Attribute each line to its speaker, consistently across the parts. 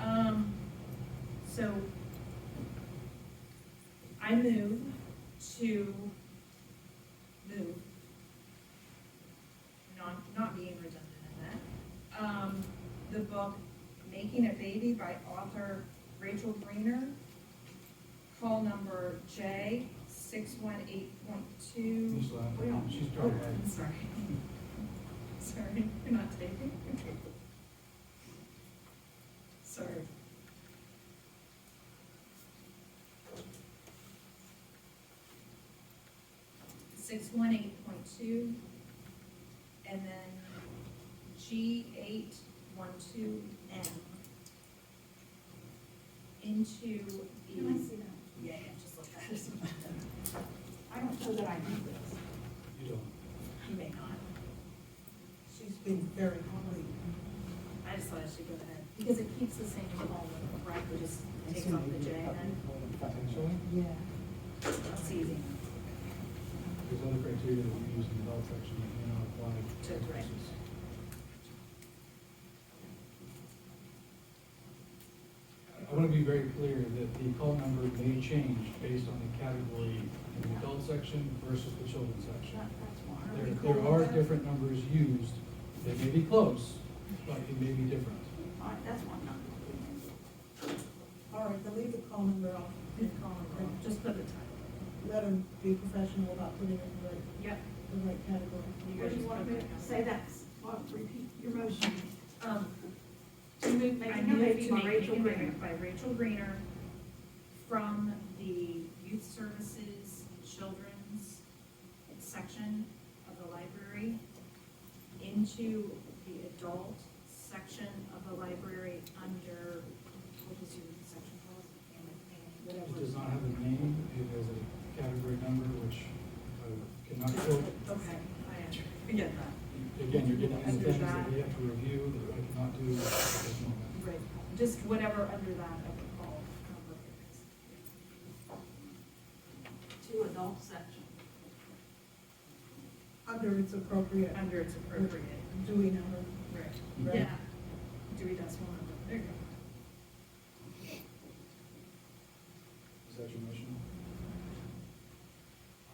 Speaker 1: Um, I move to move, not, not being redundant in that, um, the book Making a Baby by author Rachel Greener, call number J six one eight point two.
Speaker 2: She's
Speaker 1: We
Speaker 2: laughing,
Speaker 1: don't-
Speaker 2: she's
Speaker 1: Oh,
Speaker 2: drunk.
Speaker 1: I'm sorry. Sorry, you're not taking. Sorry. Six one eight point two, and then G eight one two M. Into the.
Speaker 3: Can I see that?
Speaker 1: Yeah, yeah, just look at it.
Speaker 3: I don't know that I need this.
Speaker 2: You don't.
Speaker 1: You may not.
Speaker 3: She's been very hungry.
Speaker 1: I just thought I should go ahead, because it keeps the same column, right, we just take off the J and
Speaker 2: Potentially,
Speaker 4: Yeah.
Speaker 1: it's easy.
Speaker 2: there's other criteria that we use in the health section that may not apply.
Speaker 1: To- right.
Speaker 2: I- I want to be very clear that the call number may change based on the category in the adult section versus the children's section.
Speaker 3: That- That's why.
Speaker 2: There, there are different numbers used, they may be close, but it may be different.
Speaker 3: All right, that's why I'm not. All right, then leave the column there,
Speaker 1: Good column, or just put the title.
Speaker 5: let them be professional about putting it in the right,
Speaker 1: Yep.
Speaker 5: the right category.
Speaker 3: What do you want to do? say that, well, repeat your motion.
Speaker 1: Um,
Speaker 3: To move,
Speaker 1: I
Speaker 3: making a
Speaker 1: moved
Speaker 3: baby
Speaker 1: to
Speaker 3: by
Speaker 1: make
Speaker 3: Rachel
Speaker 1: Making a
Speaker 3: Greener.
Speaker 1: Baby by Rachel Greener from the youth services, children's section of the library into the adult section of the library under, what is your section called?
Speaker 2: It does not have a name, it has a category number which I cannot quote.
Speaker 1: Okay, I get that.
Speaker 2: Again, you're getting into things that we have to review that I cannot do at this moment.
Speaker 1: Right, just whatever under that of the call. number is.
Speaker 3: To adult section.
Speaker 5: Under its appropriate
Speaker 1: Under it's appropriate.
Speaker 5: Dewey number.
Speaker 1: Right.
Speaker 5: Right.
Speaker 1: Yeah. Dewey Decimal Number, there you go.
Speaker 2: Is that your motion?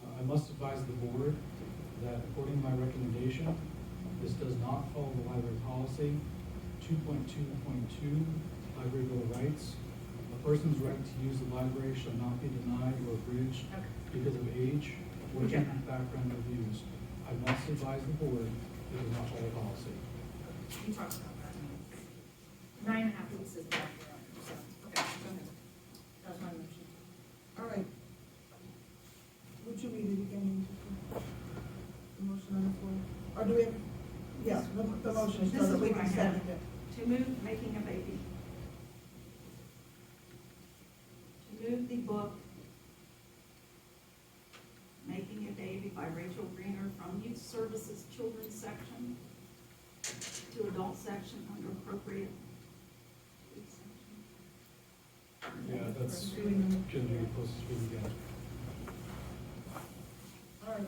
Speaker 2: Uh, I must advise the board that according to my recommendation, this does not follow the library policy two point two point two, library bill of rights. A person's right to use the library shall not be denied or abridged
Speaker 1: Okay.
Speaker 2: because of age,
Speaker 1: Okay.
Speaker 2: working background reviews. I must advise the board it does not follow the policy.
Speaker 1: We talked about that. Nine and a half weeks is about four hours, so, okay, go ahead. That was my motion.
Speaker 5: All right. Would you read it again? The motion on the floor, or do we have, yes, the, the motion,
Speaker 3: This
Speaker 5: so
Speaker 3: is
Speaker 5: that we
Speaker 3: what I
Speaker 5: can
Speaker 3: have.
Speaker 5: second it.
Speaker 3: To move, making a baby. To move the book, Making a Baby by Rachel Greener from Youth Services Children's Section to Adult Section under appropriate.
Speaker 2: Yeah, that's,
Speaker 5: Dewey number.
Speaker 2: shouldn't be close to speed again.
Speaker 5: All right.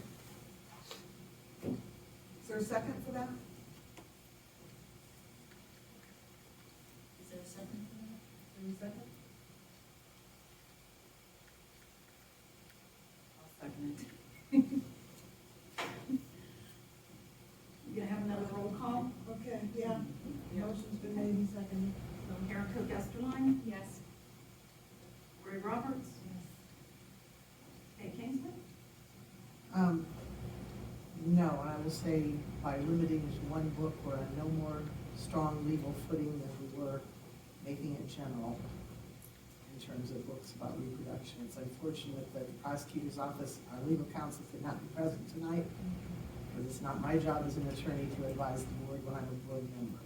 Speaker 5: Is there a second for that?
Speaker 1: Is there a second for that?
Speaker 5: Is there a second?
Speaker 3: You gonna have another roll call?
Speaker 5: Okay, yeah, motion's been made and seconded, so.
Speaker 3: Karen Cook Esterline,
Speaker 1: Yes.
Speaker 3: Roy Roberts. Kay Kingsley.
Speaker 4: Um, no, I will say by limiting it to one book, we're on no more strong legal footing than we were making it general in terms of books about reproduction. It's unfortunate that the prosecutor's office, our legal counsel could not be present tonight, because it's not my job as an attorney to advise the board when I'm a board member.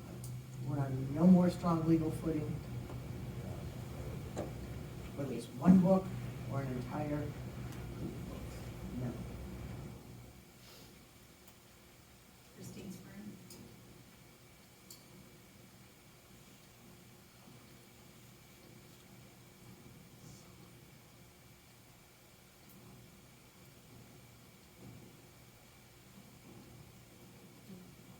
Speaker 4: We're on no more strong legal footing, whether it's one book or an entire